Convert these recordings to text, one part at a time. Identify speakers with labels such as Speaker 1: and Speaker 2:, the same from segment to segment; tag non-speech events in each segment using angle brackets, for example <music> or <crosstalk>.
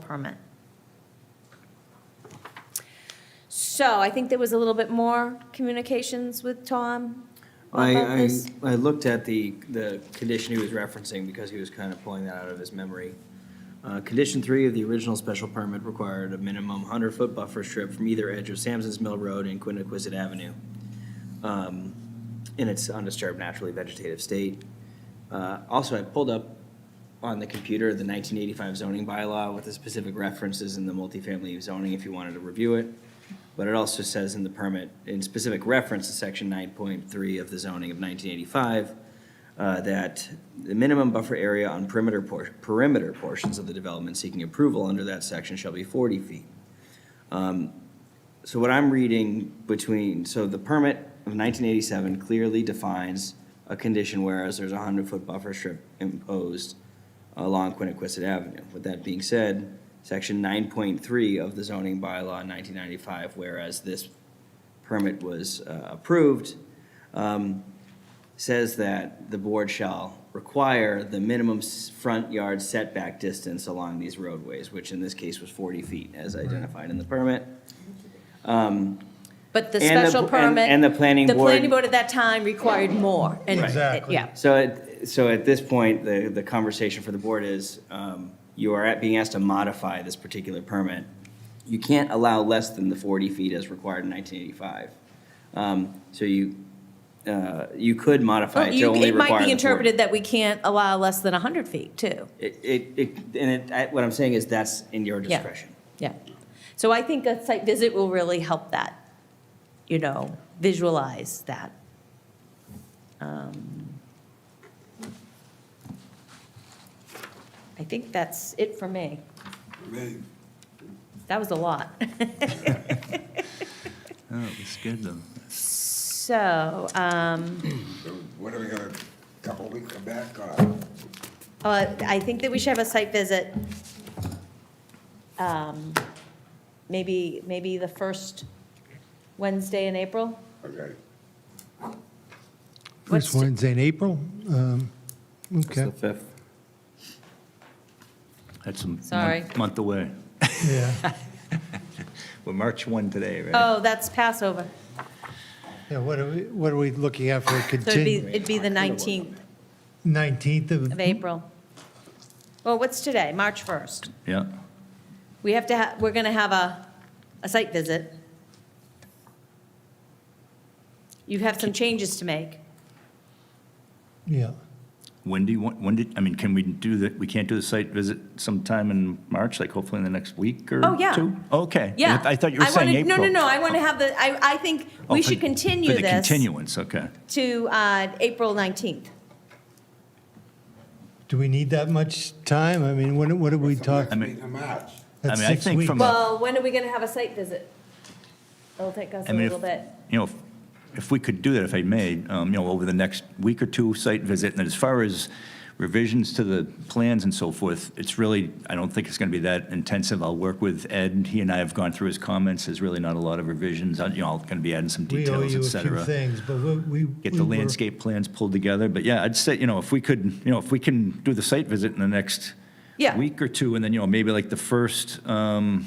Speaker 1: permit.
Speaker 2: So I think there was a little bit more communications with Tom
Speaker 3: I,
Speaker 2: about
Speaker 3: I,
Speaker 2: this.
Speaker 3: I looked at the, the condition he was referencing because he was kind of pulling that out of his memory. Uh, condition three of the original special permit required a minimum hundred-foot buffer strip from either edge of Samson's Mill Road and Quiniquisette Avenue. Um, in its undisturbed naturally vegetative state. Uh, also, I pulled up on the computer the nineteen eighty-five zoning bylaw with the specific references in the multifamily zoning if you wanted to review it. But it also says in the permit, in specific reference to section nine point three of the zoning of nineteen eighty-five, uh, that the minimum buffer area on perimeter por- perimeter portions of the development seeking approval under that section shall be forty feet. Um, So what I'm reading between, so the permit of nineteen eighty-seven clearly defines a condition whereas there's a hundred-foot buffer strip imposed along Quiniquisette Avenue. With that being said, section nine point three of the zoning bylaw in nineteen ninety-five, whereas this permit was uh, approved, um, says that the board shall require the minimum s- front yard setback distance along these roadways, which in this case was forty feet as identified in the permit.
Speaker 2: But the
Speaker 3: And the-
Speaker 2: special
Speaker 3: and-
Speaker 2: permit.
Speaker 3: and the planning
Speaker 2: The planning
Speaker 3: board-
Speaker 2: board at that time required more. and-
Speaker 4: Exactly.
Speaker 2: Yeah.
Speaker 3: So, at- so at this point, the, the conversation for the board is, um, you are at- being asked to modify this particular permit. You can't allow less than the 40 feet as required in 1985. Um, So you, uh, you could modify
Speaker 2: Well,
Speaker 3: it to
Speaker 2: Oh, you-
Speaker 3: only
Speaker 2: It might
Speaker 3: require
Speaker 2: be
Speaker 3: the 40.
Speaker 2: interpreted that we can't allow less than 100 feet, too.
Speaker 3: It, it, it- and it, I- what I'm saying is that's in your
Speaker 2: Yeah.
Speaker 3: discretion.
Speaker 2: Yeah. So I think a site visit will really help that, you know, visualize that. Um, I think that's it for me.
Speaker 5: May,
Speaker 2: That was a lot. <laughs>
Speaker 6: Oh, it was good though.
Speaker 2: So, um,
Speaker 5: so what are we gonna, couple weeks come back, or
Speaker 2: uh, I think that we should have a site visit. um, Maybe, maybe the first Wednesday in April?
Speaker 5: okay,
Speaker 2: What's
Speaker 4: First
Speaker 2: t-
Speaker 4: Wednesday in April? Um, Okay,
Speaker 3: fifth.
Speaker 6: That's a month-
Speaker 2: Sorry.
Speaker 6: month away.
Speaker 4: yeah,
Speaker 6: We're March 1 today, right?
Speaker 2: Oh, that's Passover.
Speaker 4: yeah, what are we, what are we looking at for a
Speaker 2: So it'd be,
Speaker 4: continu,
Speaker 2: it'd be the 19th
Speaker 4: 19th
Speaker 2: of
Speaker 4: of,
Speaker 2: April. Well, what's today? March 1st.
Speaker 6: Yeah.
Speaker 2: We have to, ha- we're going to have a, a site visit. You have some changes to make.
Speaker 4: yeah.
Speaker 6: When do you want, when did, I mean, can we do the, we can't do the site visit sometime in March, like hopefully in the next week or two?
Speaker 2: Oh, yeah.
Speaker 6: Okay.
Speaker 2: Yeah.
Speaker 6: I thought you were
Speaker 2: I wanna-
Speaker 6: saying April.
Speaker 2: No, no, no, I want to have the, I, I think
Speaker 6: Oh,
Speaker 2: we
Speaker 6: for-
Speaker 2: should continue
Speaker 6: For the
Speaker 2: this
Speaker 6: continuance, okay.
Speaker 2: to uh, April 19th.
Speaker 4: Do we need that much time? I mean, what, what are we
Speaker 6: I
Speaker 4: talking?
Speaker 6: mean-
Speaker 5: in March.
Speaker 6: I
Speaker 4: That's
Speaker 6: mean, I
Speaker 4: six
Speaker 6: think
Speaker 4: weeks.
Speaker 6: from a-
Speaker 2: Well, when are we going to have a site visit? It'll take us
Speaker 6: I
Speaker 2: a
Speaker 6: mean, if-
Speaker 2: little bit.
Speaker 6: You know, if- if we could do that, if I may, um, you know, over the next week or two, site visit, and as far as revisions to the plans and so forth, it's really, I don't think it's going to be that intensive. I'll work with Ed, he and I have gone through his comments, there's really not a lot of revisions, I- you know, I'm going to be adding some
Speaker 4: We owe
Speaker 6: details,
Speaker 4: you
Speaker 6: et
Speaker 4: a few
Speaker 6: cetera.
Speaker 4: things, but we. we-
Speaker 6: Get
Speaker 4: we
Speaker 6: the
Speaker 2: Mm-hmm.
Speaker 4: were-
Speaker 6: landscape plans pulled together, but yeah, I'd say, you know, if we could, you know, if we can do the site visit in the next
Speaker 2: Yeah.
Speaker 6: week or two, and then, you know, maybe like the first, um,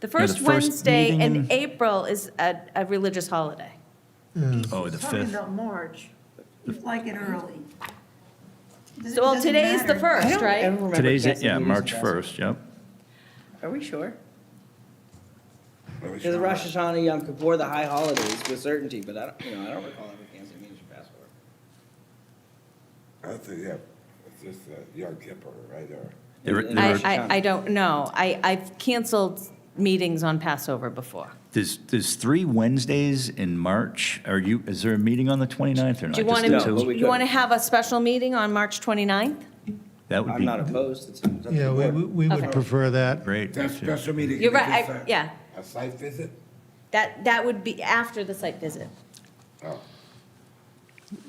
Speaker 2: The first
Speaker 6: first
Speaker 2: Wednesday
Speaker 6: meeting
Speaker 2: in
Speaker 6: in-
Speaker 2: April is a, a religious holiday.
Speaker 6: oh, the
Speaker 1: He's Talking
Speaker 6: 5th.
Speaker 1: about March, You'd like it early. Does it-
Speaker 2: So, well,
Speaker 1: doesn't
Speaker 2: today's the
Speaker 1: matter.
Speaker 2: first,
Speaker 3: I don't
Speaker 2: right?
Speaker 3: ever remember
Speaker 6: Today's, it,
Speaker 3: casting
Speaker 6: yeah,
Speaker 3: meetings in
Speaker 6: March
Speaker 3: Passover.
Speaker 6: 1st, yep.
Speaker 1: Are we sure?
Speaker 3: Yeah, The Rosh Hashanah, Yom Kippur, the high holidays with certainty, but I don't, you know, I don't recall ever canceling meetings for Passover.
Speaker 5: I think, yeah, it's just uh, Yom Kippur, right, or,
Speaker 6: There-
Speaker 3: And-
Speaker 6: there
Speaker 2: I,
Speaker 6: are-
Speaker 2: I, I don't know. I, I've canceled meetings on Passover before.
Speaker 6: There's, there's three Wednesdays in March. Are you, is there a meeting on the 29th or not?
Speaker 2: Do you
Speaker 6: Just
Speaker 2: want
Speaker 6: the
Speaker 3: No, but
Speaker 2: to,
Speaker 3: we
Speaker 6: two?
Speaker 2: you want to
Speaker 3: couldn't.
Speaker 2: have a special meeting on March 29th?
Speaker 6: That would
Speaker 3: I'm not
Speaker 6: be
Speaker 3: opposed, it's, it's up to
Speaker 4: Yeah,
Speaker 3: the
Speaker 4: we,
Speaker 3: board.
Speaker 4: we
Speaker 2: Okay.
Speaker 4: would prefer that.
Speaker 6: great.
Speaker 5: that special meeting.
Speaker 2: You're
Speaker 5: is
Speaker 2: right, I-
Speaker 5: just a-
Speaker 2: yeah.
Speaker 5: A site visit?
Speaker 2: That, that would be after the site visit.
Speaker 5: Oh,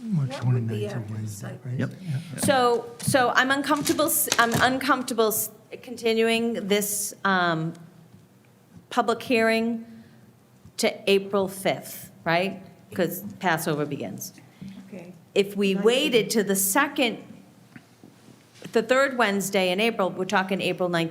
Speaker 4: March
Speaker 1: That would be
Speaker 4: 29th
Speaker 1: after
Speaker 4: of
Speaker 1: the
Speaker 4: Wednesday,
Speaker 1: site
Speaker 4: right?
Speaker 6: Yep.
Speaker 2: So, so I'm uncomfortable, s- I'm uncomfortable s- continuing this um, public hearing to April 5th, right? Because Passover begins.
Speaker 1: Okay.
Speaker 2: if we waited to the second, the third Wednesday in April, we're talking April 19th.